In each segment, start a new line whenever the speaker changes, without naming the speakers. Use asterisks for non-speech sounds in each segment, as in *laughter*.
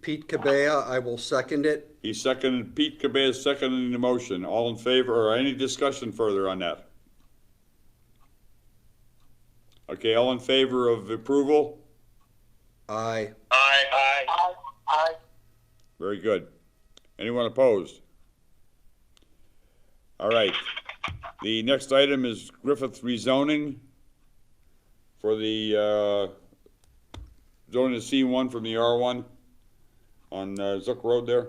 Pete Cabea. I will second it.
He seconded, Pete Cabea seconding the motion. All in favor or any discussion further on that? Okay, all in favor of approval?
Aye.
Aye. Aye. Aye.
Very good. Anyone opposed? All right. The next item is Griffith rezoning for the uh, zone to C1 from the R1 on uh, Zook Road there.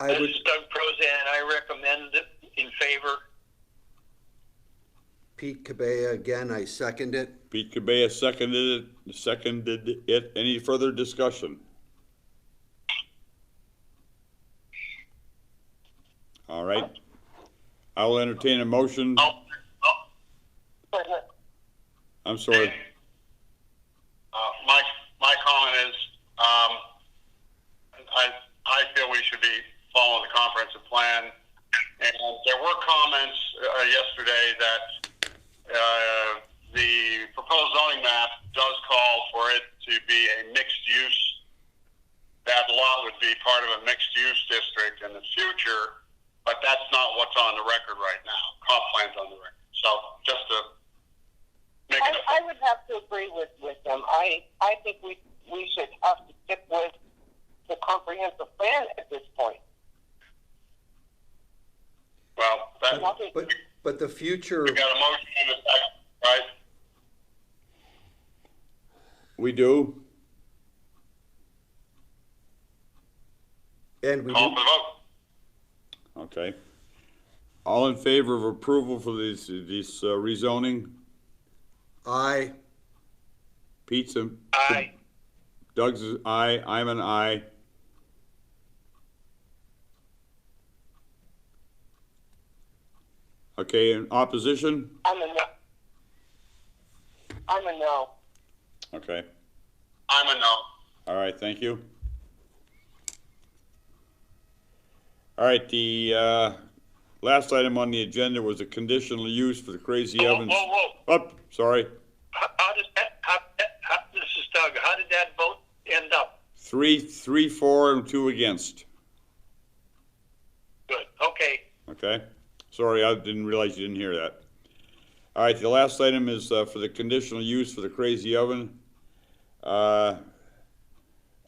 I
This
would,
is Doug Prozan. I recommend it in favor.
Pete Cabea again, I second it.
Pete Cabea seconded it, seconded it. Any further discussion? All right. I will entertain a motion.
Oh. oh.
I'm sorry.
Uh, my, my comment is, um, I, I feel we should be following the comprehensive plan. And there were comments uh, yesterday that uh, the proposed zoning map does call for it to be a mixed use. That lot would be part of a mixed use district in the future, but that's not what's on the record right now. Comp plan's on the record. So just to make it.
I, I would have to agree with, with them. I, I think we, we should have to stick with the comprehensive plan at this point.
Well, that,
Nothing,
But, but the future,
we got a motion and a second, right?
We do?
and we,
Call
do-
for the vote.
Okay. All in favor of approval for this, this uh, rezoning?
aye.
Pete's a.
Aye.
Doug's is aye, I'm an aye. Okay, in opposition?
I'm a no. I'm a no.
Okay,
I'm a no.
all right, thank you. All right, the, uh, last item on the agenda was a conditional use for the Crazy
Whoa,
Evans.
oh.
whoa, whoa.
Up, sorry,
How, how does that, how, how, this is Doug, how did that vote end up?
three, three, four, and two against.
Good, okay.
Okay, sorry, I didn't realize you didn't hear that. All right, the last item is uh, for the conditional use for the Crazy Oven. Uh,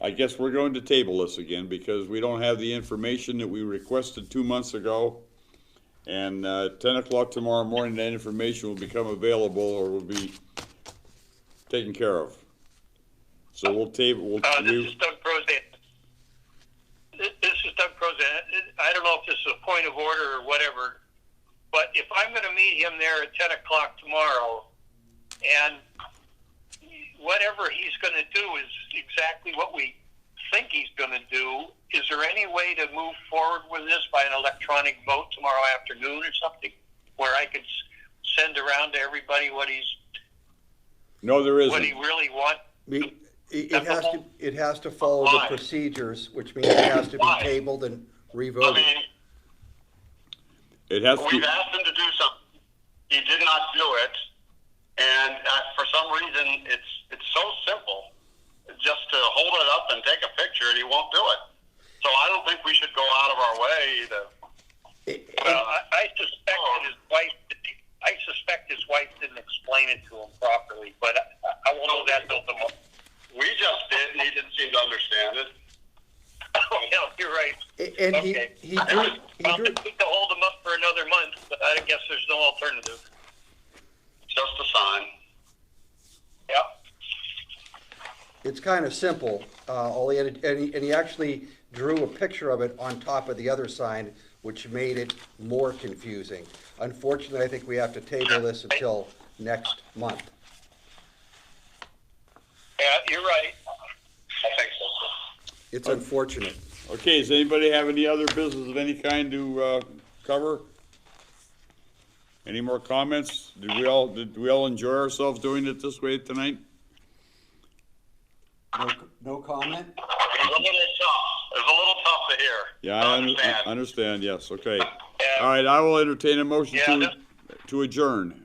I guess we're going to table this again because we don't have the information that we requested two months ago. And uh, 10 o'clock tomorrow morning, that information will become available or will be taken care of. So we'll table, we'll,
Uh, this is
we-
Doug Prozan. This this is Doug Prozan. I don't know if this is a point of order or whatever, but if I'm going to meet him there at 10 o'clock tomorrow, and whatever he's going to do is exactly what we think he's going to do, is there any way to move forward with this by an electronic vote tomorrow afternoon or something where I could s- send around to everybody what he's
no, there
what he
isn't.
really wants?
We- It it has to, it has to follow the
Aye.
procedures, which means it has to be
Aye.
tabled and revoted.
It has to.
We've asked him to do something. He did not do it, and uh, for some reason, it's it's so simple, just to hold it up and take a picture, and he won't do it. So I don't think we should go out of our way to. uh, Oh.
It-
Well, I, I suspect that his wife. I suspect his wife didn't explain it to him properly, but I, I won't know that until tomorrow. We just did, and he didn't seem to understand *laughs* it. yeah, you're right.
And he,
Okay.
he drew, he
Well,
drew,
We can hold them up for another month, but I guess there's no alternative. Just a sign. Yep.
it's kind of simple. Uh, all he had, and he, and he actually drew a picture of it on top of the other sign, which made it more confusing. Unfortunately, I think we have to table this until next month.
Yeah, you're right. I think so.
It's unfortunate.
Okay, does anybody have any other business of any kind to uh, cover? Any more comments? Did we all, did we all enjoy ourselves doing it this way tonight?
No, no comment?
It was a little tough. It was a little tough to hear.
Yeah, I un- I understand, yes, okay.
Yeah.
All right, I will entertain a motion
Yeah,
to,
that's-
to adjourn.